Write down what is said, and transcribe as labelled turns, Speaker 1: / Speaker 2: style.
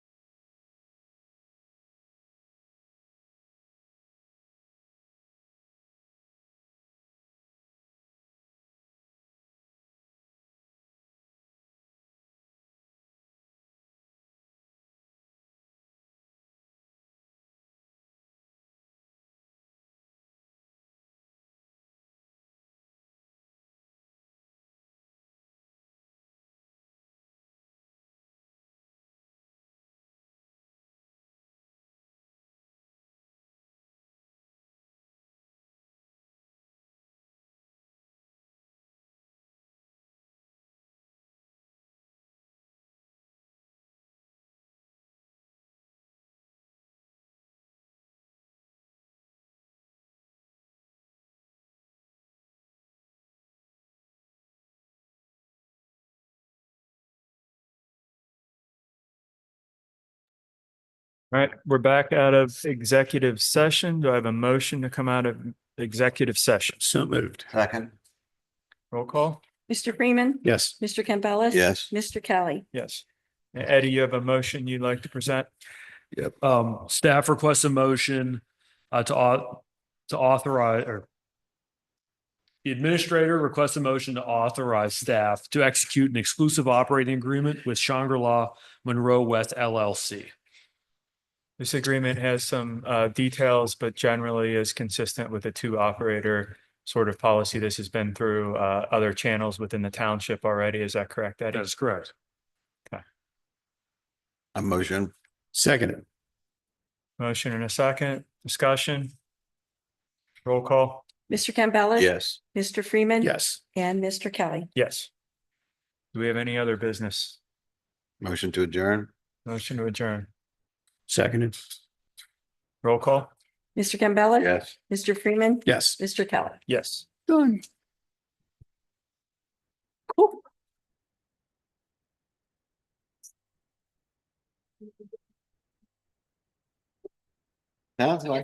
Speaker 1: All right, we're back out of executive session. Do I have a motion to come out of executive session?
Speaker 2: So moved.
Speaker 3: Second,
Speaker 1: Roll call?
Speaker 4: Mr. Freeman.
Speaker 2: Yes.
Speaker 4: Mr. Campbell.
Speaker 3: yes.
Speaker 4: Mr. Kelly.
Speaker 1: Yes. Eddie, you have a motion you'd like to present?
Speaker 5: Um, staff requests a motion uh, to au- to authorize or the administrator requests a motion to authorize staff to execute an exclusive operating agreement with Shangri-La Monroe West LLC.
Speaker 1: This agreement has some uh, details, but generally is consistent with the two operator sort of policy. This has been through uh, other channels within the township already. Is that correct, Eddie?
Speaker 5: That is correct.
Speaker 3: A motion,
Speaker 2: Seconded.
Speaker 1: Motion and a second, discussion? Roll call?
Speaker 4: Mr. Campbell.
Speaker 3: yes.
Speaker 4: Mr. Freeman.
Speaker 2: Yes.
Speaker 4: And Mr. Kelly.
Speaker 1: Yes. Do we have any other business?
Speaker 3: Motion to adjourn,
Speaker 1: Motion to adjourn.
Speaker 2: Seconded.
Speaker 1: Roll call?
Speaker 4: Mr. Campbell.
Speaker 3: yes.
Speaker 4: Mr. Freeman.
Speaker 2: Yes.
Speaker 4: Mr. Kelly.
Speaker 1: Yes.
Speaker 2: Done.
Speaker 3: Sounds like